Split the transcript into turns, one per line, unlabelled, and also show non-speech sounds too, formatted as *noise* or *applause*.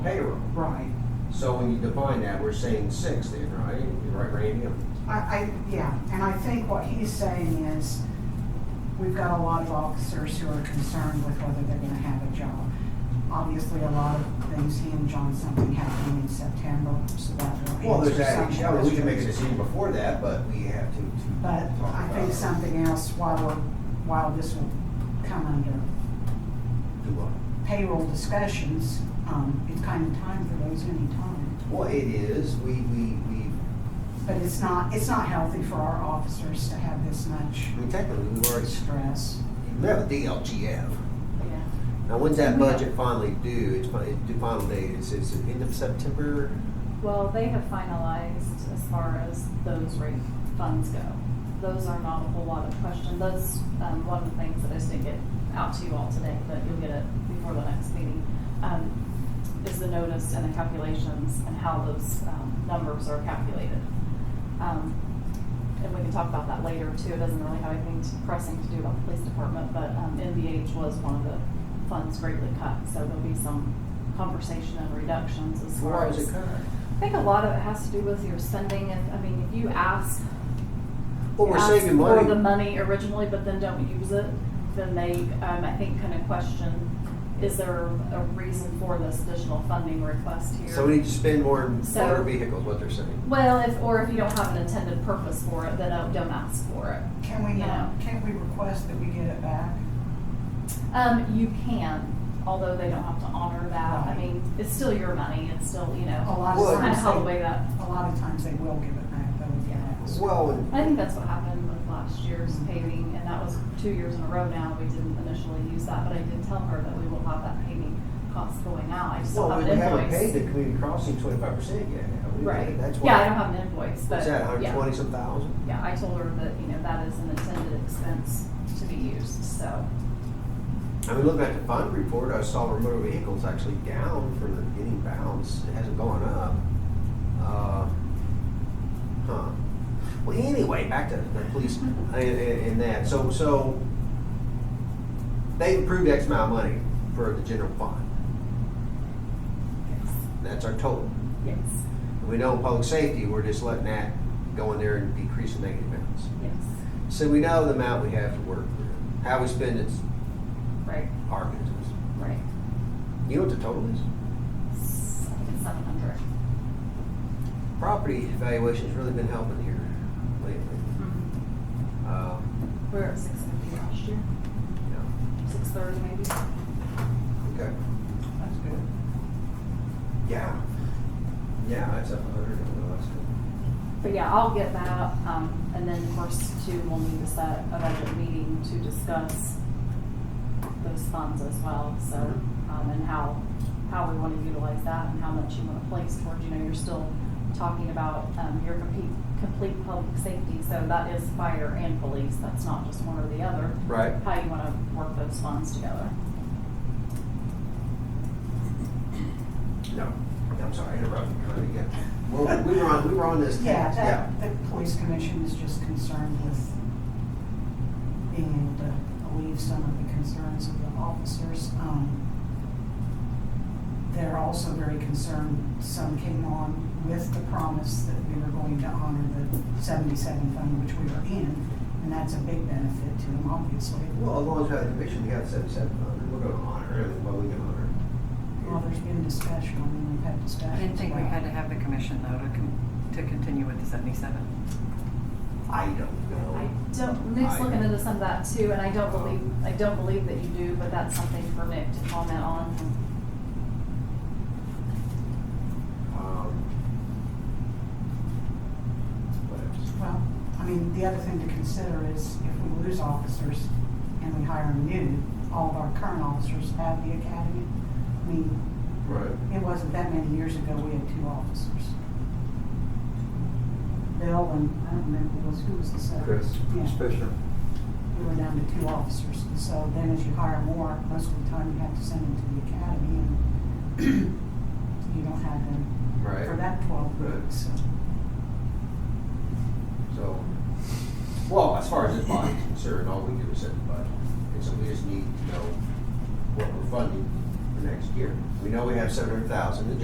Right.
So when you define that, we're saying six then, right? You're Right, Randy?
I, I, yeah, and I think what he's saying is, we've got a lot of officers who are concerned with whether they're gonna have a job. Obviously, a lot of things hinge on something happening in September, so that will answer some.
Well, there's that, yeah, well, we can make a
questions.
decision before that, but we have to, to
But
talk about.
I think
it.
something else, while we're, while this will come under
Do what?
payroll discussions, um, it's kind of time for those anytime.
Well, it is, we, we, we,
But it's not, it's not healthy for our officers to have this much
I mean, technically, we've already,
stress.
we have a DLGF.
Yeah.
Now, when's that
Yeah.
budget finally due? It's, fin- it's due final date, is, is it end of September?
Well, they have finalized as far as those rate funds go. Those are not a whole lot of question. Those, um, one of the things that I just didn't get out to you all today, but you'll get it before the next meeting, um, is the notice and the calculations and how those, um, numbers are calculated. Um, and we can talk about that later too. It doesn't really have anything to- pressing to do about the police department, but, um, NVH was one of the funds greatly cut, so there'll be some conversation and reductions as far
Why
as.
is it cut?
I think a lot of it has to do with your spending. If, I mean, if you ask,
Well, we're
ask
saving
for the
money.
money originally, but then don't use it, then they, um, I think, kind of question, is there a reason for this additional funding request here?
So we need to spend more on
So-
motor vehicles, what they're saying.
well, if or if you don't have an intended purpose for it, then don't, don't ask for it.
Can we,
Yeah.
not? can we request that we get it back?
Um, you can, although they don't have to honor that. I
Right.
mean, it's still your money. It's still you
A
know,
lot
Well,
of
kind of
times,
how the way
they-
that.
a lot of times they will give it back though, if you
Yeah.
ask.
Well, and-
I think that's what happened with last year's paving, and that was two years in a row now, we didn't initially use that, but I did tell her that we will have that paving cost going out, I just don't
well,
have
we
an
haven't paid the
invoice.
community crossing twenty-five percent yet, have we?
Right,
That's
yeah, I
why,
don't have an invoice, but,
what's that, hundred
yeah,
twenty some thousand?
yeah, I told her that, you know, that is an intended expense to be used, so.
I mean, looking at the fund report, I saw our motor vehicles actually down for the beginning balance. It hasn't gone up. Uh, Huh. Well, anyway, back to the police and, and and that. So, so they approved X amount of money for the general fund.
Yes.
That's our total.
Yes,
We know in public safety, we're just letting that go in there and decrease the negative balance.
yes,
So we know the amount we have to work with. How we spend it's
right,
our business.
right,
You know what the total is?
S- I think it's seven hundred.
property valuation's really been helping here lately. Um,
Mm-hmm. We were at six fifty last year,
yeah,
six thirty maybe,
okay,
That's good.
yeah, yeah, it's up a hundred over the last one.
But yeah, I'll get that, um, and then of course too, we'll need to set a budget meeting to discuss those funds as well, so,
Mm-hmm.
um, and how, how we wanna utilize that and how much you wanna place towards, you know, you're still talking about, um, your complete, complete public safety, so that is fire and police, that's not just one or the other,
Right.
how you wanna work those funds together.
No, I'm sorry, I interrupted you, Connie, yeah. Well, we were on, we were on this.
Yeah,
Yeah.
that, the police commission is just concerned with being able to alleviate some of the concerns of the officers. Um, They're also very concerned, some came on with the promise that we were going to honor the seventy-seven fund, which we are in, and that's a big benefit to them, obviously.
Well, as long as we have the commission, we got seventy-seven hundred, we're gonna honor it, what we can honor.
Well, there's been discussion, I mean, we've had discussion.
I didn't think we had to have the commission though to, con- to continue with the seventy-seven.
I don't
I
know.
don't, Nick's
Oh. I-
looking into some of that too, and I don't believe, I don't believe that you do, but that's something for Nick to comment on.
Um, What else?
Well, I mean, the other thing to consider is if we lose officers and we hire new, all of our current officers have the academy. I mean,
Right.
it wasn't that many years ago, we had two officers. Bill and, I don't remember who was, who was the second? Yeah,
Fisher.
we were down to two officers. And So then as you hire more, most of the time you have to send them to the academy and *clears throat* you don't have them for
Right,
that twelve weeks, so.
so, well, as far as this body's concerned, all we do is set the budget, and so we just need to know what we're funding for next year. We know we have seven hundred thousand in